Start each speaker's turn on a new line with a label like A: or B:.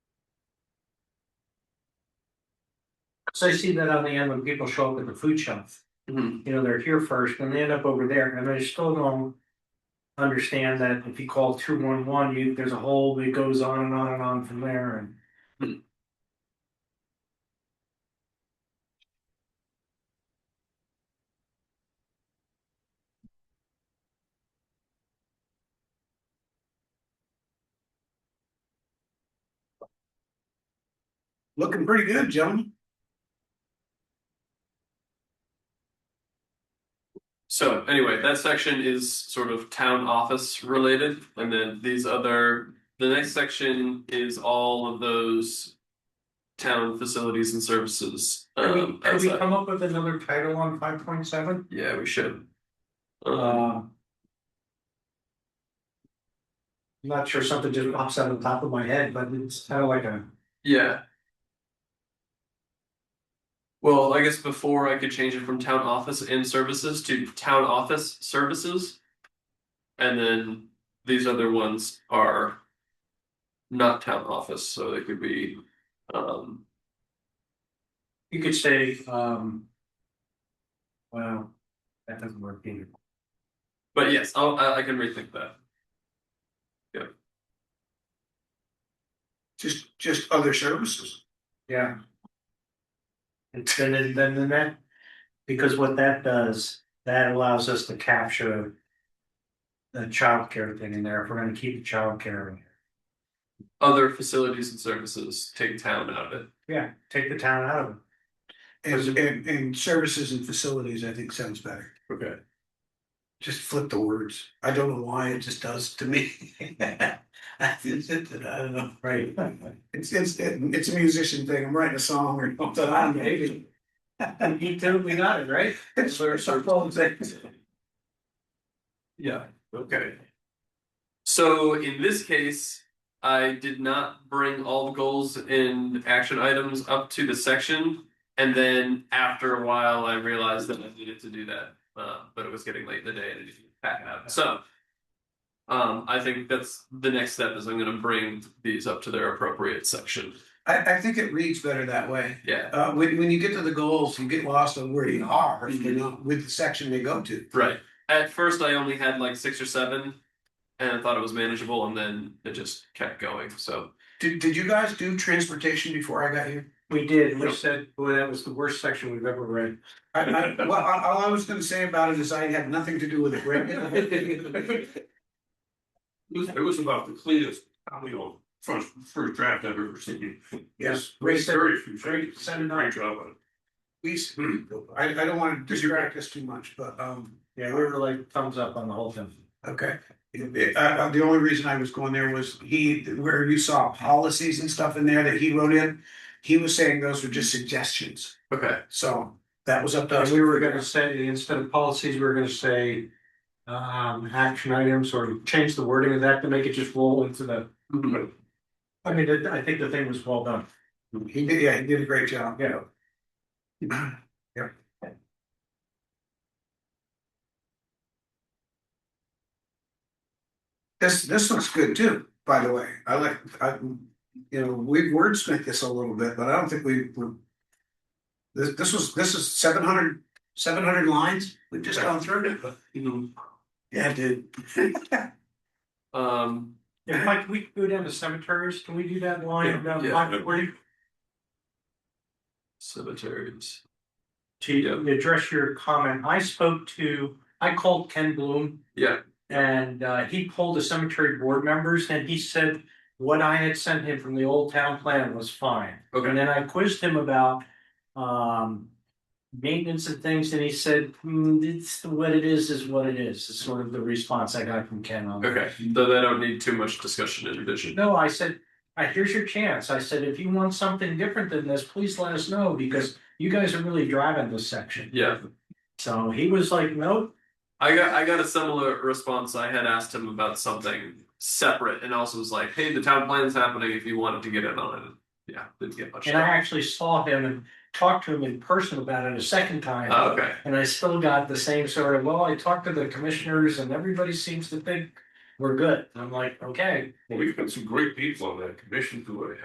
A: So I see that on the end when people show up at the food shelf,
B: Mhm.
A: you know, they're here first and they end up over there and I still don't. Understand that if you call two one one, you, there's a hole that goes on and on and on from there and.
B: Looking pretty good, gentlemen.
C: So anyway, that section is sort of town office related, and then these other, the next section is all of those. Town facilities and services.
A: Can we,
C: um,
A: can we
C: outside.
A: come up with another title on five point seven?
C: Yeah, we should. Um,
A: Uh. Not sure something just pops out on top of my head, but it's kind of like a,
C: yeah. Well, I guess before I could change it from town office and services to town office services. And then these other ones are. Not town office, so they could be, um,
A: you could say, um. Well, that doesn't work either.
C: but yes, I'll, I I can rethink that.
B: Just, just other services.
A: Yeah. And then, then, then that, because what that does, that allows us to capture. The childcare thing in there, if we're gonna keep the childcare, in there.
C: Other facilities and services take town out of it.
A: yeah, take the town out of it.
B: And, and, and services and facilities, I think sounds better.
C: Okay.
B: Just flip the words. I don't know why, it just does to me. I don't know.
A: Right.
B: It's, it's, it's a musician thing. I'm writing a song or something. I don't know.
A: You totally got it, right?
B: It's where some folks say-
C: Yeah, okay. So in this case, I did not bring all the goals and action items up to the section. And then after a while, I realized that I needed to do that, uh, but it was getting late in the day and I didn't pack it up, so. Um, I think that's the next step is I'm gonna bring these up to their appropriate section,
B: I, I think it reads better that way.
C: yeah,
B: Uh, when, when you get to the goals, you get lost on where you are, you know, with the section they go to.
C: right. At first, I only had like six or seven. And I thought it was manageable and then it just kept going, so.
B: Did, did you guys do transportation before I got here?
A: We did, we
C: Yep.
A: said, boy, that was the worst section we've ever read.
B: I, I, well, I- all I was gonna say about it is I had nothing to do with it. Rick.
D: It was, it was about the cleanest, I mean, on first, first draft I've ever seen.
B: Yes,
D: Very,
A: Ray said-
D: very few. Great,
A: said it not.
D: great job on it.
B: please, I, I don't wanna distract us too much, but, um,
A: Yeah, we were like thumbs up on the whole thing.
B: okay. I, I, the only reason I was going there was he, where you saw policies and stuff in there that he wrote in, he was saying those were just suggestions,
C: Okay,
B: so that was up to
A: And
B: us.
A: we were gonna say, instead of policies, we were gonna say. Um, action items or change the wording of that to make it just roll into the, I mean, it- I think the thing was well done.
B: He did, yeah, he did a great job.
A: Yeah.
B: Yeah. This, this looks good too, by the way. I like, I, you know, we've wordsmithed this a little bit, but I don't think we, we. This, this was, this is seven hundred, seven hundred lines. We've just gone through it. Yeah, dude.
C: Um,
A: Yeah, Mike, we go down to cemeteries, can we do that line? down
C: yeah.
A: Mike, where you-
C: cemeteries.
A: To address your comment, I spoke to, I called Ken Bloom.
C: Yeah.
A: And uh, he called the cemetery board members and he said what I had sent him from the old town plan was fine. And
C: Okay,
A: then I quizzed him about um maintenance and things, and he said, hmm, it's what it is, is what it is, is sort of the response I got from Ken on. that.
C: okay, so they don't need too much discussion and revision.
A: No, I said, I, here's your chance. I said, if you want something different than this, please let us know, because you guys are really driving this section.
C: Yeah,
A: So he was like, nope,
C: I got I got a similar response. I had asked him about something separate, and also was like, "Hey, the town plan's happening. If you wanted to get in on it." Yeah, didn't get much.
A: and I actually saw him and talked to him in person about it a second time.
C: Oh, okay,
A: And I still got the same sort of, well, I talked to the commissioners and everybody seems to think we're good. And I'm like, okay.
D: Well, We've got some great people on that commission who